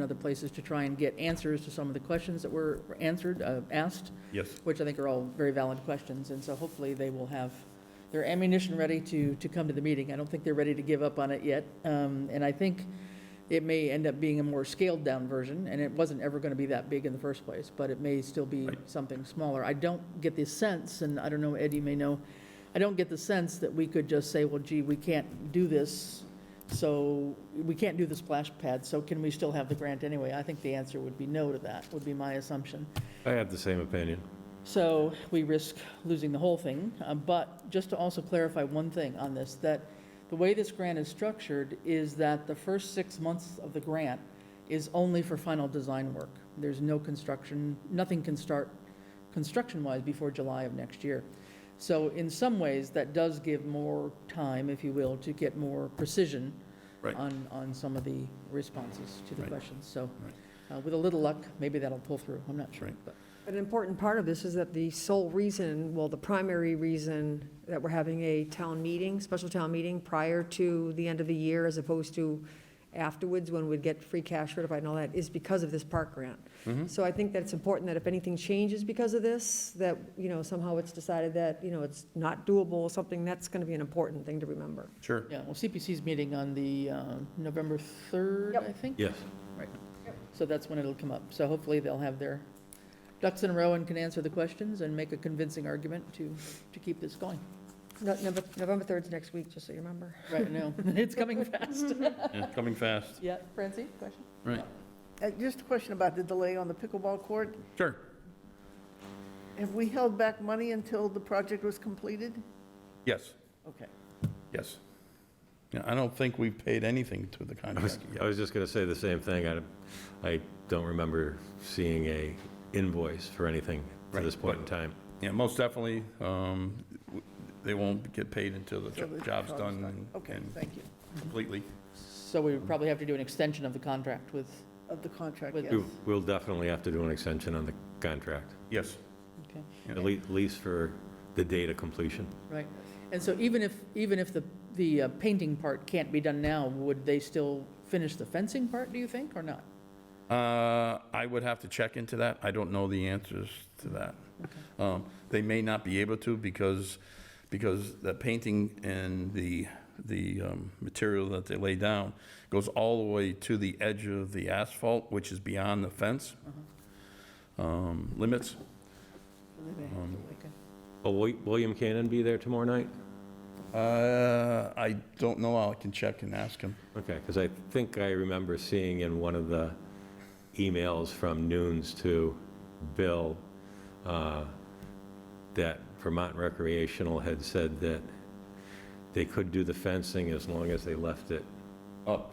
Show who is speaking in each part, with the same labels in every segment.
Speaker 1: other places to try and get answers to some of the questions that were were answered, uh, asked,
Speaker 2: Yes.
Speaker 1: which I think are all very valid questions. And so hopefully they will have their ammunition ready to, to come to the meeting. I don't think they're ready to give up on it yet. Um, And I think it may end up being a more scaled-down version, and it wasn't ever going to be that big in the first place, but it may still be
Speaker 2: Right.
Speaker 1: something smaller. I don't get the sense, and I don't know, Ed, you may know, I don't get the sense that we could just say, well, gee, we can't do this, so, we can't do the splash pad, so can we still have the grant anyway? I think the answer would be no to that, would be my assumption.
Speaker 2: I have the same opinion.
Speaker 1: So we risk losing the whole thing. Uh, But just to also clarify one thing on this, that the way this grant is structured is that the first six months of the grant is only for final design work. There's no construction, nothing can start construction-wise before July of next year. So in some ways, that does give more time, if you will, to get more precision
Speaker 2: Right.
Speaker 1: on, on some of the responses to the
Speaker 2: Right.
Speaker 1: questions. So uh, with a little luck, maybe that'll pull through. I'm not sure,
Speaker 2: Right.
Speaker 1: but.
Speaker 3: An important part of this is that the sole reason, well, the primary reason that we're having a town meeting, special town meeting prior to the end of the year as opposed to afterwards when we'd get free cash certified and all that, is because of this park grant. So I think that it's important that if anything changes because of this, that, you know, somehow it's decided that, you know, it's not doable or something, that's going to be an important thing to remember.
Speaker 2: Sure.
Speaker 1: Yeah, well, CPC's meeting on the uh, November 3rd,
Speaker 3: Yep.
Speaker 1: I think.
Speaker 2: Yes.
Speaker 1: So that's when it'll come up. So hopefully they'll have their ducks in a row and can answer the questions and make a convincing argument to, to keep this going.
Speaker 3: No- November November 3rd's next week, just so you remember.
Speaker 1: Right now, it's coming fast.
Speaker 2: Coming fast.
Speaker 1: Yeah, Francie, question?
Speaker 2: Right.
Speaker 4: Uh, Just a question about the delay on the pickleball court.
Speaker 2: Sure.
Speaker 4: Have we held back money until the project was completed?
Speaker 5: Yes,
Speaker 4: Okay.
Speaker 5: yes. Yeah, I don't think we've paid anything to the
Speaker 2: I was,
Speaker 5: contractor.
Speaker 2: I was just going to say the same thing. I, I don't remember seeing a invoice for anything to
Speaker 5: Right,
Speaker 2: this point in
Speaker 5: but-
Speaker 2: time.
Speaker 5: Yeah, most definitely, um, w- they won't get paid until the
Speaker 4: Till the
Speaker 5: jo- job's done and-
Speaker 4: Okay,
Speaker 5: and
Speaker 4: thank you.
Speaker 5: completely.
Speaker 1: So we would probably have to do an extension of the contract with,
Speaker 4: Of the contract,
Speaker 1: With-
Speaker 4: yes.
Speaker 2: We- We'll definitely have to do an extension on the contract,
Speaker 5: Yes,
Speaker 1: okay,
Speaker 2: at le- at least for the date of completion.
Speaker 1: right. And so even if, even if the, the uh, painting part can't be done now, would they still finish the fencing part, do you think, or not?
Speaker 5: Uh, I would have to check into that. I don't know the answers to that. Um, They may not be able to because, because the painting and the, the um, material that they lay down goes all the way to the edge of the asphalt, which is beyond the fence um, limits.
Speaker 4: They
Speaker 1: Um,
Speaker 4: may have to wait.
Speaker 2: Will Wi- William Cannon be there tomorrow night?
Speaker 5: Uh, I don't know. I can check and ask him.
Speaker 2: Okay, because I think I remember seeing in one of the emails from Nunes to Bill uh, that Vermont Recreational had said that they could do the fencing as long as they left it
Speaker 5: Up.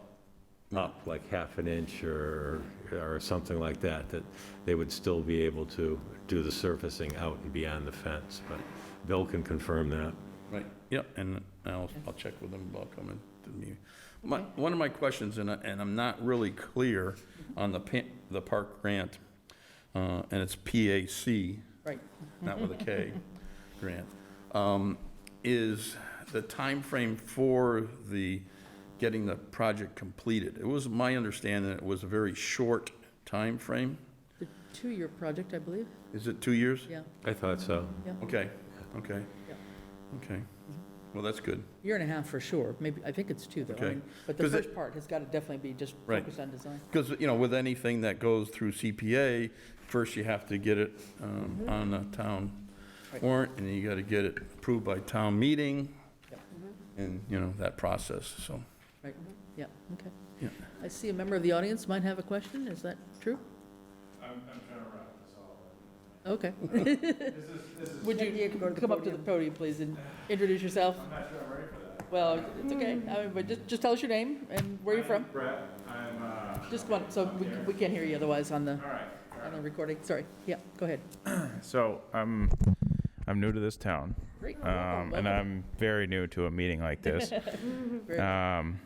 Speaker 2: up like half an inch or, or something like that, that they would still be able to do the surfacing out and beyond the fence. But Bill can confirm that.
Speaker 5: Right. Yep, and I'll, I'll check with him about coming to me. My, one of my questions, and I, and I'm not really clear
Speaker 1: Mm-hmm.
Speaker 5: on the pa, the park grant, uh, and it's PAC,
Speaker 1: Right.
Speaker 5: not with a K, grant, um, is the time frame for the, getting the project completed. It was my understanding it was a very short time frame.
Speaker 1: The two-year project, I believe,
Speaker 5: Is it two years?
Speaker 1: yeah.
Speaker 2: I thought so.
Speaker 5: Okay, okay,
Speaker 1: Yeah.
Speaker 5: okay. Well, that's good.
Speaker 1: Year and a half for sure, maybe, I think it's two though. I
Speaker 5: Okay.
Speaker 1: mean, But the
Speaker 5: 'Cause it-
Speaker 1: first part has got to definitely be just
Speaker 5: Right.
Speaker 1: focused on design.
Speaker 5: Because, you know, with anything that goes through CPA, first you have to get it um, on the town
Speaker 1: Mm-hmm. Right.
Speaker 5: warrant, and you got to get it approved by town meeting,
Speaker 1: Yep.
Speaker 5: and, you know, that process, so.
Speaker 1: Right, yeah, okay.
Speaker 5: Yeah.
Speaker 1: I see a member of the audience might have a question, is that true? I'm, I'm trying to wrap this all up. Okay. Would
Speaker 3: Yeah, you can go
Speaker 1: you
Speaker 3: to the
Speaker 1: come up to the podium,
Speaker 3: podium.
Speaker 1: please, and introduce yourself? I'm not sure I'm ready for that. Well, it's okay, I mean, but just, just tell us your name and where you're from. Brett, I'm, uh. Just one, so we, we can't hear you otherwise on the, on the recording, sorry, yeah, go ahead.
Speaker 6: So I'm I'm new to this town,
Speaker 1: Great.
Speaker 6: um, and I'm very new to a meeting like this.
Speaker 1: Very-
Speaker 6: Um,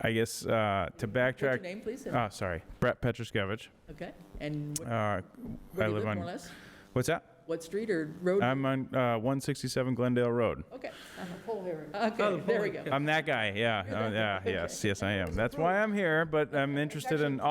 Speaker 6: I guess uh, to
Speaker 1: What's your
Speaker 6: backtrack.
Speaker 1: name, please? and-
Speaker 6: Oh, sorry, Brett Petroskevich.
Speaker 1: Okay, and what- where
Speaker 6: Uh, I
Speaker 1: do you
Speaker 6: live
Speaker 1: live, more or
Speaker 6: on-
Speaker 1: less?
Speaker 6: what's that?
Speaker 1: What street or road?
Speaker 6: I'm on uh, 167 Glendale Road.
Speaker 1: Okay, uh-huh.
Speaker 4: Poll hearing.
Speaker 1: okay, there we go.
Speaker 6: I'm that guy. Yeah. Uh, yeah. Yes. Yes, I am. That's why I'm here. But I'm interested in